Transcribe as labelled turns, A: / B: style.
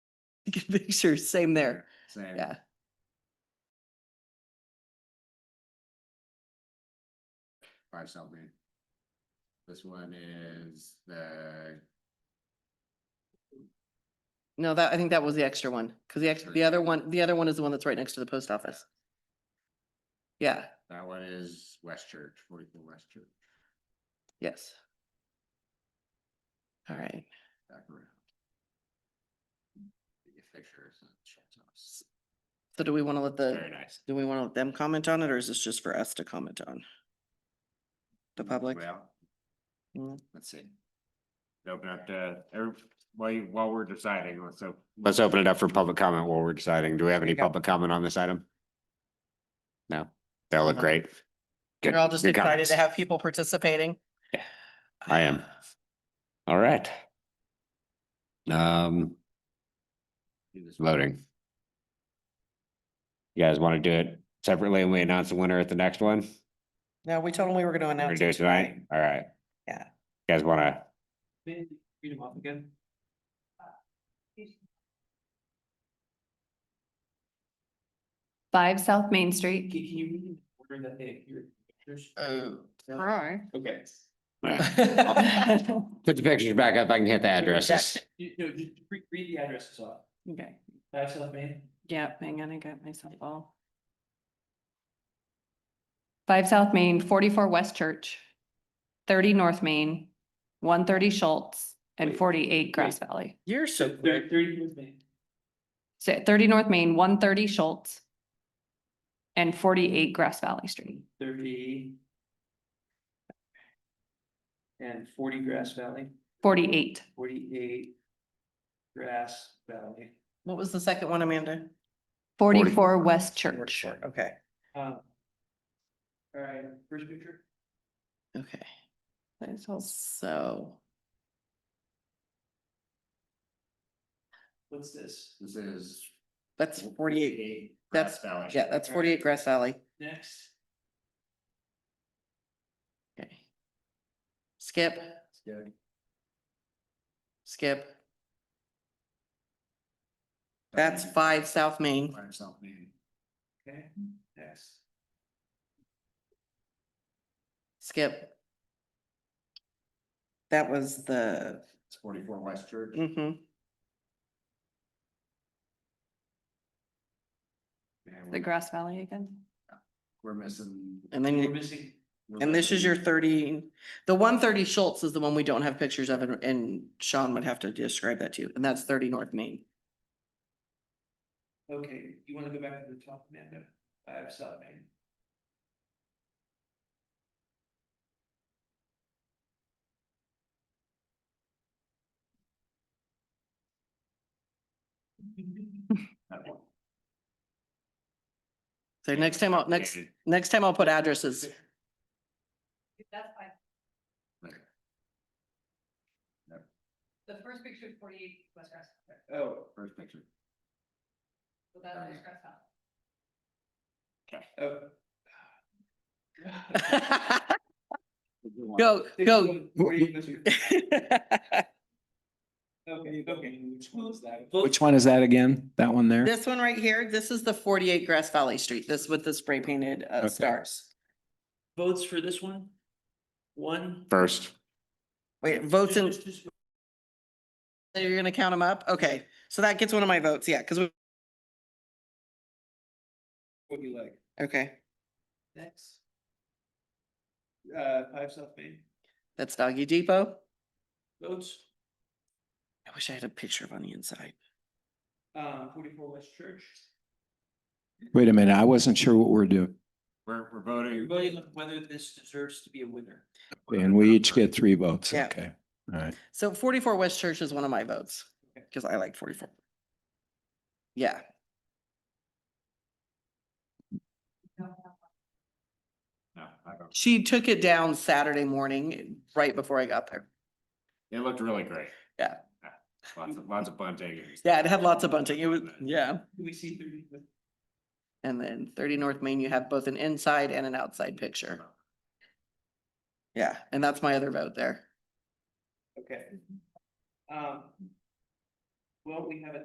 A: taking pictures, same there,
B: Same.
A: yeah.
B: Five South Main. This one is the,
A: No, that, I think that was the extra one, because the ex,
B: Sure.
A: the other one, the other one is the one that's right next to the post office. Yeah,
B: that one is West Church, forty-four West Church,
A: yes. All right,
B: back around. Get pictures and shit, so it's
A: so do we want to let
B: Very
A: the,
B: nice.
A: do we want to let them comment on it, or is this just for us to comment on? The public?
B: Well,
A: Mm.
B: Let's see. Open up to, every- while you, while we're deciding, let's, op-
C: Let's open it up for public comment while we're deciding. Do we have any
A: Okay.
C: public comment on this item? No, that'll look
A: No.
C: great.
A: We're
C: Good-
A: all just
C: good
A: excited
C: comments.
A: to have people participating.
C: I am. All right. Um,
B: do this.
C: voting. You guys want to do it separately and we announce the winner at the next one?
A: No, we told them we were going to
C: We're gonna
A: announce.
C: do it tonight? All right.
A: Yeah.
C: You Guys want to,
D: Read them off again.
E: Five South Main
D: Can
E: Street.
D: can you read them order that they appear?
A: Oh.
D: Okay.
C: put the pictures back up. I can hit the addresses.
D: You, no, just re- read the addresses off.
E: Okay,
D: Five South Main,
E: yeah, hang on, I got myself all. Five South Main, forty-four West Church, thirty North Main, one thirty Schultz, and
D: Wait,
E: forty-eight Grass
D: wait.
E: Valley.
A: You're so
D: so
A: quick.
D: thirty, thirty North Main.
E: So thirty North Main, one thirty Schultz, and forty-eight Grass Valley Street.
D: thirty. And forty Grass Valley,
E: Forty-eight,
D: forty-eight Grass Valley.
A: What was the second one, Amanda?
E: forty-four West Church.
A: Okay,
D: Um, All right, first picture.
A: okay. So,
D: What's this?
B: This is.
A: that's forty-eight,
B: Grass
A: that's,
B: Valley.
A: yeah, that's forty-eight Grass Alley.
D: Next,
A: Okay. Skip,
B: Yeah.
A: skip. That's five South Main.
B: Five South Main.
D: okay, next.
A: Skip. That was the,
B: It's forty-four West Church.
A: hmm
B: and
E: The
B: we're-
E: Grass Valley again?
B: We're missing.
A: and then,
D: We're
A: you-
D: missing,
B: we're
A: and this is your
B: missing-
A: thirty, the one thirty Schultz is the one we don't have pictures of, and- and Sean would have to describe that to you, and that's thirty North Main.
D: okay, you wanna go back to the top, Amanda? Five South Main.
B: that one.
A: So next time, I'll, next,
B: Updated.
A: next time I'll put addresses.
E: That's five.
B: Right. Yep.
E: The first picture is forty-eight West Grass.
D: Oh,
B: First picture.
E: So
B: that's West
E: Grass Valley.
D: oh.
A: Go, go.
D: Okay, okay, which one was that?
F: Which one is that again? That one there?
A: This one right here, this is the forty-eight Grass Valley Street, this with the spray painted uh
F: Okay.
A: stars.
D: Votes for this one? One?
C: First,
A: Wait, votes in,
D: Just- just-
A: you're gonna count them up? Okay, so that gets one of my votes, yeah, because we,
D: What you like.
A: okay,
D: Next. Uh, five South Main,
A: that's Doggy Depot.
D: votes,
A: I wish I had a picture of on the inside.
D: uh, forty-four West Church.
F: Wait a minute, I wasn't sure what we're doing.
B: We're, we're
D: We're
B: voting.
D: voting on whether this deserves to be a winner.
F: And we each get three votes.
A: Yeah.
F: Okay, all right.
A: So forty-four West Church is one of my votes,
D: Okay.
A: because I like forty-four. Yeah,
B: No, I don't-
A: she took it down Saturday morning, right before I got there.
B: It looked really great.
A: Yeah.
B: Lots of, lots of bunting.
A: Yeah, it had lots of bunting, it was, yeah.
D: Do we see thirty?
A: And then thirty North Main, you have both an inside and an outside picture. Yeah, and that's my other vote there.
D: Okay. Um. Well, we have a